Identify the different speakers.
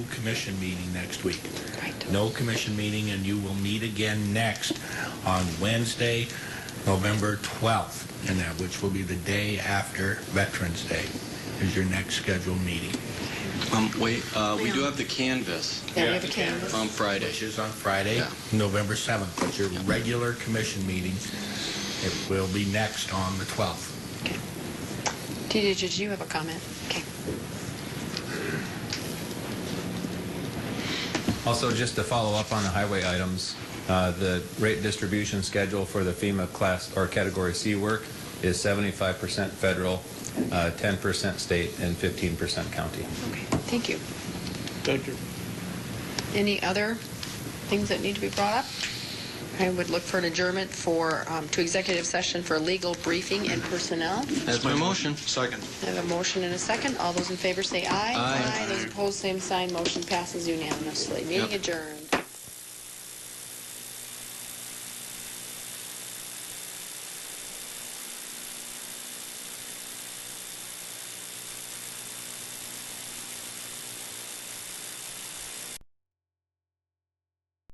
Speaker 1: commission meeting next week. No commission meeting, and you will meet again next on Wednesday, November 12th, and that, which will be the day after Veterans Day, is your next scheduled meeting,
Speaker 2: Um, wait, uh, we do have the canvas
Speaker 3: Yeah, we have a canvas.
Speaker 2: on Friday.
Speaker 1: which is on Friday,
Speaker 2: Yeah.
Speaker 1: November 7th. But your regular commission meeting, it will be next on the 12th.
Speaker 3: Did did you have a comment? Okay.
Speaker 4: Also, just to follow up on the highway items, uh, the rate distribution schedule for the FEMA class or category C work is 75% federal, uh, 10% state, and 15% county.
Speaker 3: Okay, thank you.
Speaker 5: Thank you.
Speaker 3: Any other things that need to be brought up? I would look for an adjournment for, um, to executive session for legal briefing and personnel.
Speaker 2: That's my motion.
Speaker 5: Second.
Speaker 3: I have a motion and a second. All those in favor say aye.
Speaker 2: Aye.
Speaker 3: Those opposed, same sign. Motion passes unanimously. Meeting
Speaker 2: Yep.
Speaker 3: adjourned.